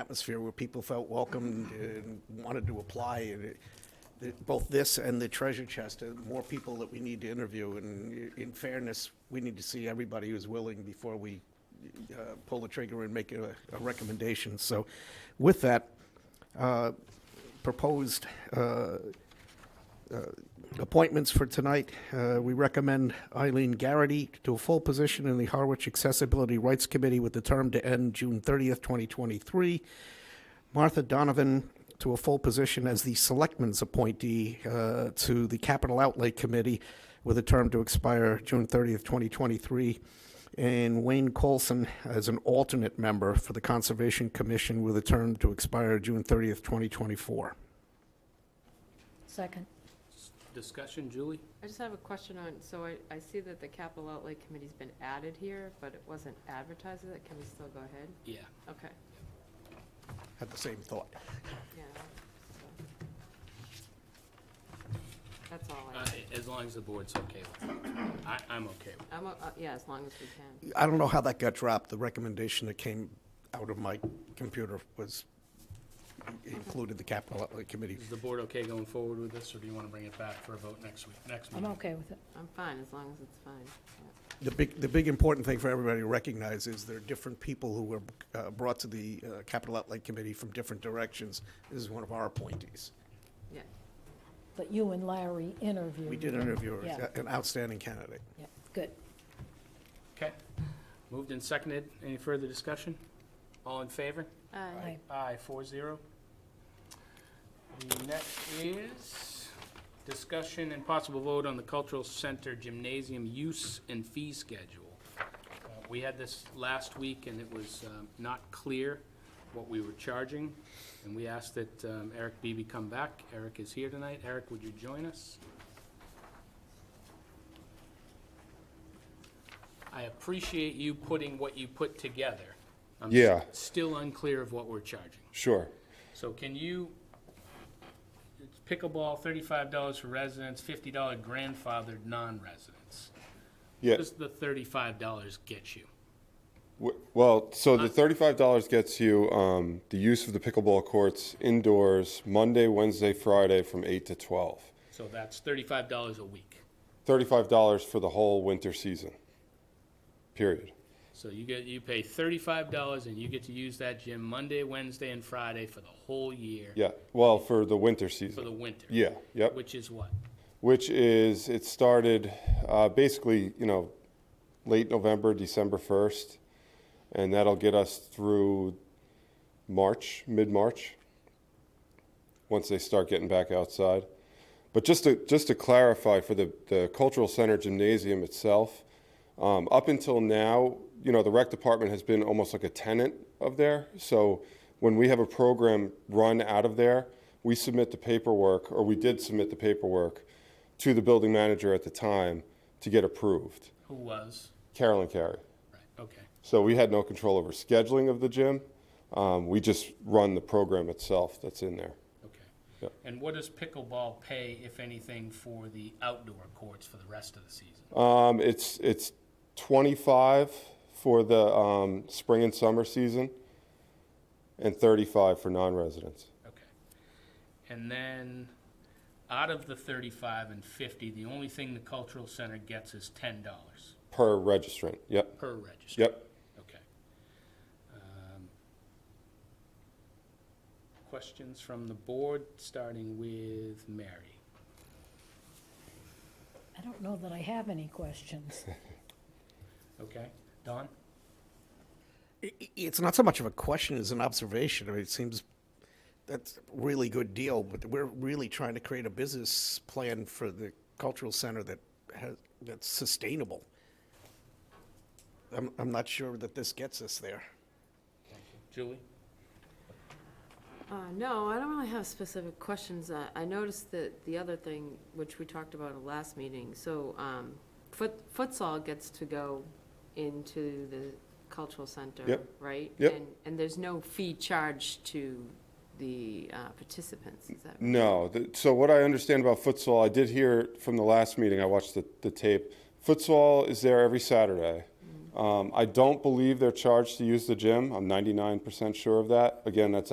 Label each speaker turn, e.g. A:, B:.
A: atmosphere where people felt welcomed and wanted to apply. And it- the- Both this and the treasure chest, are more people that we need to interview. And i- in fairness, we need to see everybody who's willing before we uh, pull the trigger and make a a recommendation. So with that, uh, proposed uh, appointments for tonight, uh, we recommend Eileen Garrity to a full position in the Harwich Accessibility Rights Committee with the term to end June 30th, 2023. Martha Donovan to a full position as the Selectman's appointee uh, to the Capital Outlay Committee with a term to expire June 30th, 2023. And Wayne Colson as an alternate member for the Conservation Commission with a term to expire June 30th, 2024.
B: Second.
C: Discussion, Julie?
D: I just have a question on, so I, I see that the capital outlay committee's been added here, but it wasn't advertised, as that, can we still go ahead?
C: Yeah.
D: Okay,
A: Had the same thought.
D: yeah. so. That's all I,
C: Uh, As long as the board's okay with it. I, I'm okay with
D: I'm, o- uh, yeah, as long as we can.
A: I don't know how that got dropped. The recommendation that came out of my computer was, included the capital outlay committee.
C: it. Is the board okay going forward with this, or do you want to bring it back for a vote next week, next
B: I'm
C: meeting?
B: okay with it.
D: I'm fine, as long as it's fine. yeah.
A: The big, the big important thing for everybody to recognize is there are different people who were uh, brought to the uh, capital outlay committee from different directions. This is one of our appointees.
D: Yeah,
B: But you and Larry interviewed.
A: We did interview
B: Mm-hmm. Yeah.
A: her, an outstanding candidate.
B: Yeah, good.
C: Okay. Moved and seconded. Any further discussion? All in favor?
D: aye,
B: Aye.
C: Aye, four zero. Next is discussion and possible vote on the cultural center gymnasium use and fee schedule. Uh, We had this last week, and it was um, not clear what we were charging, and we asked that um, Eric Beebe come back. Eric is here tonight. Eric, would you join us? I appreciate you putting what you put together. I'm s-
E: Yeah.
C: Still unclear of what we're charging.
E: Sure.
C: So can you, it's pickleball, thirty-five dollars for residents, fifty dollar grandfathered non-residents. What
E: Yeah.
C: does the thirty-five dollars get you?
E: W- Well, so the thirty-five dollars gets you um, the use of the pickleball courts indoors Monday, Wednesday, Friday from eight to twelve.
C: So that's thirty-five dollars a week.
E: Thirty-five dollars for the whole winter season. Period.
C: So you get, you pay thirty-five dollars and you get to use that gym Monday, Wednesday, and Friday for the whole year.
E: Yeah. Well, for the winter
C: For the
E: season.
C: winter.
E: Yeah. Yep.
C: Which is what?
E: Which is it started uh, basically, you know, late November, December first, and that'll get us through March, mid-March, once they start getting back outside. But just to, just to clarify for the, the cultural center gymnasium itself, um, up until now, you know, the rec department has been almost like a tenant of there. So when we have a program run out of there, we submit the paperwork, or we did submit the paperwork to the building manager at the time to get approved,
C: Who was?
E: Carolyn Carey.
C: Right, okay.
E: So we had no control over scheduling of the gym. Um, we just run the program itself that's in there.
C: Okay.
E: Yep.
C: And what does pickleball pay, if anything, for the outdoor courts for the rest of the season?
E: Um, it's it's 25 for the um, spring and summer season, and 35 for non-residents.
C: Okay. And then, out of the thirty-five and fifty, the only thing the cultural center gets is ten dollars
E: Per registrant. Yep.
C: per register.
E: Yep.
C: Okay. Um, Questions from the board, starting with Mary.
B: I don't know that I have any questions.
C: Okay, Don?
A: I- i- It's not so much of a question as an observation. I mean, it seems that's a really good deal, but we're really trying to create a business plan for the cultural center that has, that's sustainable. I'm, I'm not sure that this gets us there.
C: Julie?
D: Uh, no, I don't really have specific questions. Uh, I noticed that the other thing, which we talked about at last meeting, so um, foot futsal gets to go into the cultural center,
E: Yep.
D: right?
E: Yep.
D: And, and there's no fee charged to the uh, participants, is that?
E: No. The, so what I understand about futsal, I did hear from the last meeting. I watched the, the tape. Futsal is there every Saturday. Um, I don't believe they're charged to use the gym. I'm 99% sure of that. Again, that's